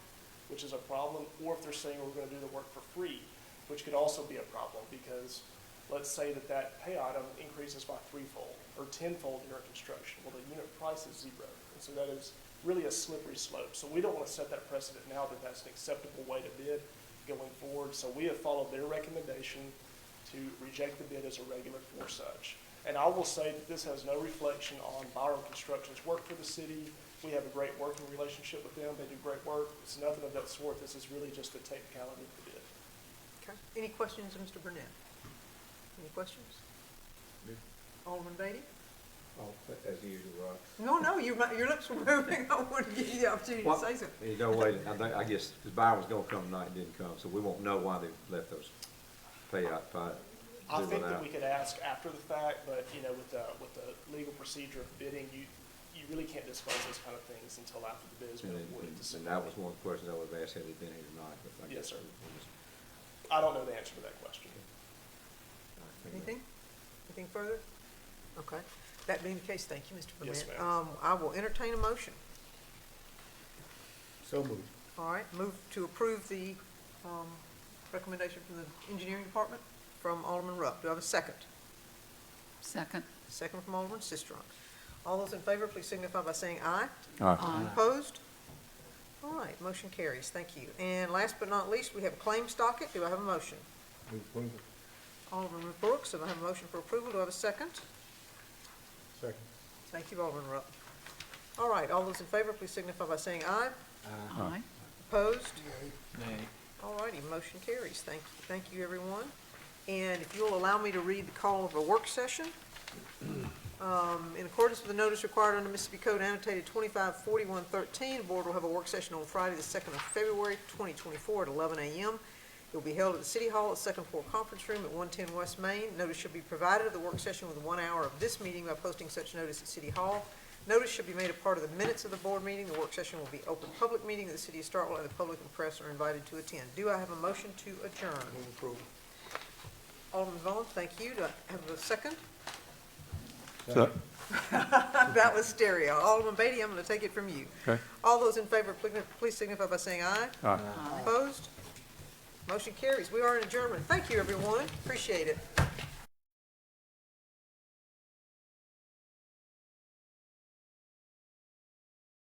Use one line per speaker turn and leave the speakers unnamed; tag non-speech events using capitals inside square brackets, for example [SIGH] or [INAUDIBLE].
which is a problem, or if they're saying we're gonna do the work for free, which could also be a problem, because let's say that that pay item increases by threefold or tenfold during construction, well, the unit price is zero. And so that is really a slippery slope. So we don't wanna set that precedent now that that's an acceptable way to bid going forward. So we have followed their recommendation to reject the bid as irregular for such. And I will say that this has no reflection on Byram Construction's work for the city. We have a great working relationship with them. They do great work. It's nothing of that sort. This is really just a technicality of the bid.
Okay, any questions of Mr. Burnett? Any questions?
No.
Alderman Beatty?
Oh, as usual, Rob.
No, no, your, mi- your lips were moving, [LAUGHS] I wanted to give you the opportunity to
What?
say something.
There's no way, I think, I guess, because Byron was gonna come tonight and didn't come, so we won't know why they left those payout, fi-
I
zeroing
think that
out.
we could ask after the fact, but, you know, with the, with the legal procedure of bidding, you, you really can't disclose those kind of things until after the bid is
And
bid
then-
awarded to
And
somebody.
that was one of the questions I would have asked had he been here tonight, but I
Yes,
guess.
sir.
we- we just-
I don't know the answer to that question.
all right, thank you.
Anything? Anything further? Okay. That being the case, thank you, Mr. Burnett.
Yes, ma'am.
Um, I will entertain a motion.
So moved.
All right, move to approve the, um, recommendation from the engineering department from Alderman Rupp. Do I have a second?
Second.
Second from Alderman Sistrunk. All those in favor, please signify by saying aye.
Aye.
Opposed? All right, motion carries. Thank you. And last but not least, we have claim docket. Do I have a motion?
Move approval.
Alderman Brooks, do I have a motion for approval? Do I have a second?
Second.
Thank you, Alderman Rupp. All right, all those in favor, please signify by saying aye.
Aye.
Opposed? All righty, motion carries. Thank, thank you, everyone. And if you'll allow me to read the call of a work session. Um, In accordance with the notice required under Mississippi Code annotated 254113, the board will have a work session on Friday, the 2nd of February, 2024, at 11 a.m. It will be held at the City Hall at Second Floor Conference Room at 110 West Main. Notice should be provided of the work session within one hour of this meeting by posting such notice at City Hall. Notice should be made a part of the minutes of the board meeting. The work session will be open public meeting of the city of Starkville, and the public and press are invited to attend. Do I have a motion to adjourn?
Move approval.
Alderman Vaughn, thank you. Do I have a second?
Second.
[LAUGHS] That was stereo. Alderman Beatty, I'm going to take it from you.
Okay.
All those in favor, pli- please signify by saying aye. Aye. Opposed? Motion carries. We are in adjournment. Thank you, everyone. Appreciate it.